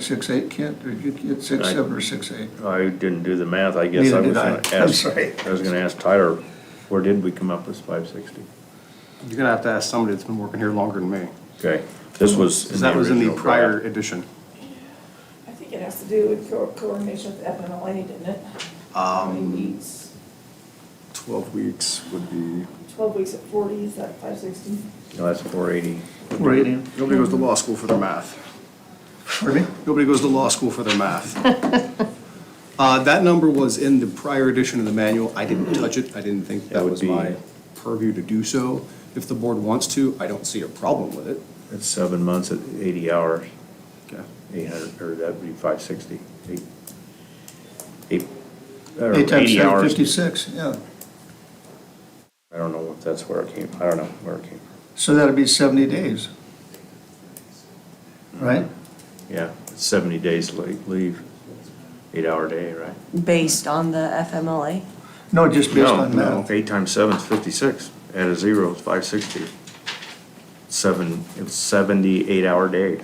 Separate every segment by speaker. Speaker 1: Six, eight, Kent, or you get six,
Speaker 2: Right.
Speaker 1: seven, or six, eight?
Speaker 2: I didn't do the math, I guess
Speaker 1: Neither
Speaker 2: I was
Speaker 1: did I.
Speaker 2: gonna
Speaker 1: I'm
Speaker 2: ask,
Speaker 1: sorry.
Speaker 2: I was gonna ask Tyler, where did we come up with five sixty?
Speaker 3: You're gonna have to ask somebody that's been working here longer than me,
Speaker 2: Okay, this was.
Speaker 3: because that was in the
Speaker 2: original
Speaker 3: prior
Speaker 2: draft.
Speaker 3: edition.
Speaker 4: I think it has to do with co- coordination with FMLA, didn't it? How many weeks?
Speaker 3: Twelve weeks would be.
Speaker 4: Twelve weeks at forty, is that five sixty?
Speaker 2: No, that's four eighty.
Speaker 1: We're eighty.
Speaker 3: Nobody goes to law school for their math.
Speaker 1: Pardon me?
Speaker 3: Nobody goes to law school for their math. Uh, that number was in the prior edition of the manual. I didn't touch it. I didn't think
Speaker 2: That
Speaker 3: that
Speaker 2: would
Speaker 3: was
Speaker 2: be-
Speaker 3: my purview to do so. If the board wants to, I don't see a problem with it.
Speaker 2: That's seven months at eighty hours,
Speaker 3: Okay.
Speaker 2: eight hundred, or that'd be five sixty, eight. Eight, or
Speaker 1: Eight times
Speaker 2: eighty
Speaker 1: seven,
Speaker 2: hours.
Speaker 1: fifty-six, yeah.
Speaker 2: I don't know if that's where it came, I don't know where it came from.
Speaker 1: So that'd be seventy days. Right?
Speaker 2: Yeah, seventy days late leave, eight hour day, right?
Speaker 5: Based on the FMLA?
Speaker 1: No, just based
Speaker 2: No,
Speaker 1: on
Speaker 2: no,
Speaker 1: math.
Speaker 2: eight times seven is fifty-six, add a zero, it's five sixty. Seven, it's seventy-eight hour day.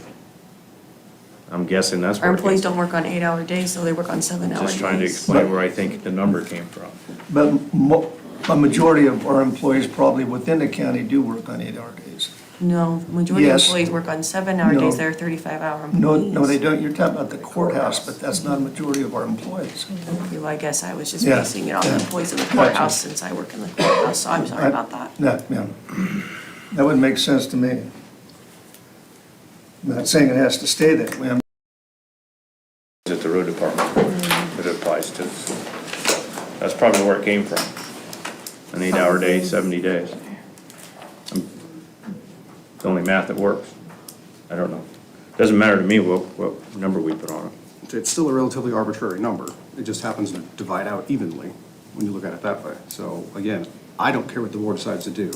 Speaker 2: I'm guessing that's where.
Speaker 5: Our
Speaker 2: it came
Speaker 5: employees
Speaker 2: from.
Speaker 5: don't work on eight-hour days, so they work on seven-hour days.
Speaker 2: Just trying to explain where I think the number came from.
Speaker 1: But mo, a majority of our employees probably within the county do work on eight-hour days.
Speaker 5: No, majority of
Speaker 1: Yes.
Speaker 5: employees work on seven-hour days,
Speaker 1: No.
Speaker 5: they're thirty-five-hour
Speaker 1: No,
Speaker 5: employees.
Speaker 1: no, they don't, you're talking about the courthouse, but that's not a majority of our employees.
Speaker 5: Okay, Well, I guess I was just
Speaker 1: Yeah,
Speaker 5: basing it on the
Speaker 1: yeah.
Speaker 5: employees in the
Speaker 1: Gotcha.
Speaker 5: courthouse, since I work in the courthouse, so I'm sorry about that.
Speaker 1: No, yeah. That wouldn't make sense to me. I'm Not saying it has to stay that way, I'm
Speaker 2: Is it the road department
Speaker 5: Mm.
Speaker 2: that it applies to? That's probably where it came from. An eight hour day, seventy days. It's the only math that works. I don't know. Doesn't matter to me what, what number we put on it.
Speaker 3: It's still a relatively arbitrary number. It just happens to divide out evenly when you look at it that way. So again, I don't care what the board decides to do.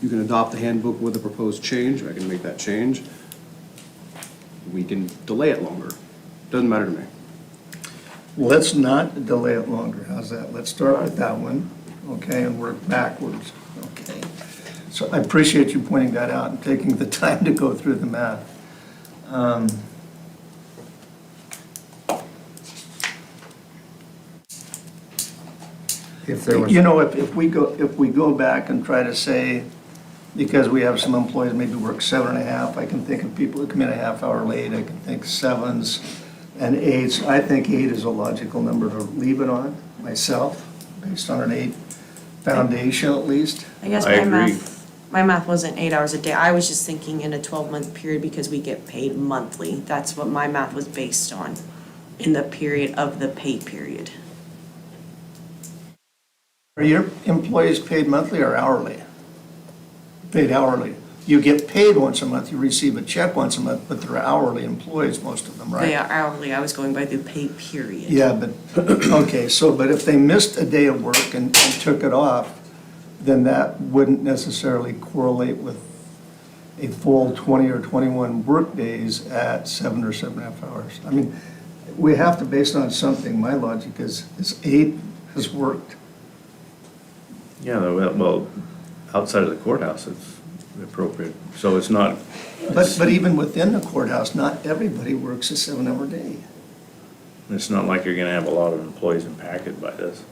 Speaker 3: You can adopt the handbook with a proposed change, I can make that change. We can delay it longer. Doesn't matter to me.
Speaker 1: Let's not delay it longer, how's that? Let's start with that one, okay, and work backwards, okay? So I appreciate you pointing that out and taking the time to go through the math. Um,
Speaker 6: If there was,
Speaker 1: You know, if, if we go, if we go back and try to say, because we have some employees maybe work seven and a half, I can think of people that come in a half hour late, I can think sevens and eights. I think eight is a logical number to leave it on myself, based on an eight foundation at least.
Speaker 5: I guess
Speaker 2: I
Speaker 5: my
Speaker 2: agree.
Speaker 5: math, my math wasn't eight hours a day, I was just thinking in a twelve-month period because we get paid monthly. That's what my math was based on, in the period of the pay period.
Speaker 1: Are your employees paid monthly or hourly? Paid hourly. You get paid once a month, you receive a check once a month, but they're hourly employees, most of them, right?
Speaker 5: They are hourly, I was going by the pay period.
Speaker 1: Yeah, but, okay, so, but if they missed a day of work and, and took it off, then that wouldn't necessarily correlate with a full twenty or twenty-one work days at seven or seven and a half hours. I mean, we have to base it on something. My logic is, is eight has worked.
Speaker 2: Yeah, well, well, outside of the courthouse, it's appropriate. So it's not,
Speaker 1: But, but even within the courthouse, not everybody works a seven-hour day.
Speaker 2: it's not like you're gonna have a lot of employees impacted by this.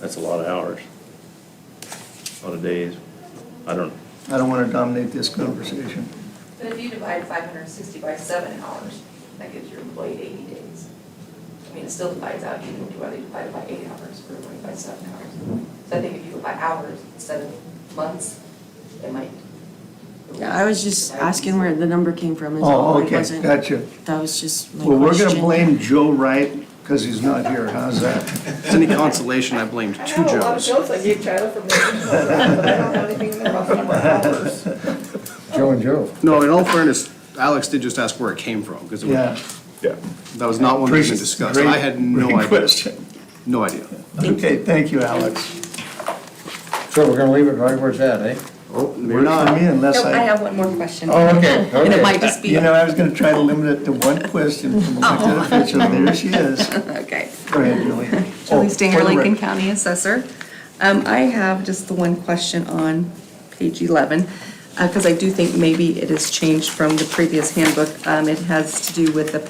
Speaker 2: That's a lot of hours. A lot of days. I don't,
Speaker 1: I don't want to dominate this conversation.
Speaker 7: But if you divide five hundred and sixty by seven hours, that gives your employee eighty days. I mean, it still divides out, even whether you divide it by eight hours or divide it by seven hours. So I think if you go by hours instead of months, it might.
Speaker 5: Yeah, I was just asking where the number came from, is all,
Speaker 1: Oh,
Speaker 5: it
Speaker 1: okay,
Speaker 5: wasn't.
Speaker 1: gotcha.
Speaker 5: That was just my
Speaker 1: Well,
Speaker 5: question.
Speaker 1: we're gonna blame Joe Wright because he's not here. How's that?
Speaker 3: If it's any consolation, I blamed
Speaker 4: I
Speaker 3: two
Speaker 4: have a lot of
Speaker 3: Joes.
Speaker 4: notes I gave Tyler from the, but I don't have anything in there about the number of hours.
Speaker 6: Joe and Joe,
Speaker 3: No, in all fairness, Alex did just ask where it came from, because
Speaker 1: Yeah.
Speaker 3: that was not one that's been discussed. I had no
Speaker 1: Great
Speaker 3: idea,
Speaker 1: question.
Speaker 3: no idea.
Speaker 1: Okay, thank you, Alex.
Speaker 6: so we're gonna leave it right where it's at, eh?
Speaker 1: We're not me unless
Speaker 8: Nope, I
Speaker 1: I,
Speaker 8: have one more question.
Speaker 6: Oh, okay,
Speaker 8: And it might
Speaker 6: okay.
Speaker 8: just be,
Speaker 1: you know, I was gonna try to limit it to one question from elected official. There she is.
Speaker 8: Oh. okay.
Speaker 1: Go ahead, Julie.
Speaker 8: Julie
Speaker 1: Oh,
Speaker 8: Stinger,
Speaker 1: for the
Speaker 8: Lincoln
Speaker 1: record.
Speaker 8: County Assessor. Um, I have just the one question on page 11. because I do think maybe it has changed from the previous handbook. Um, It has to do with the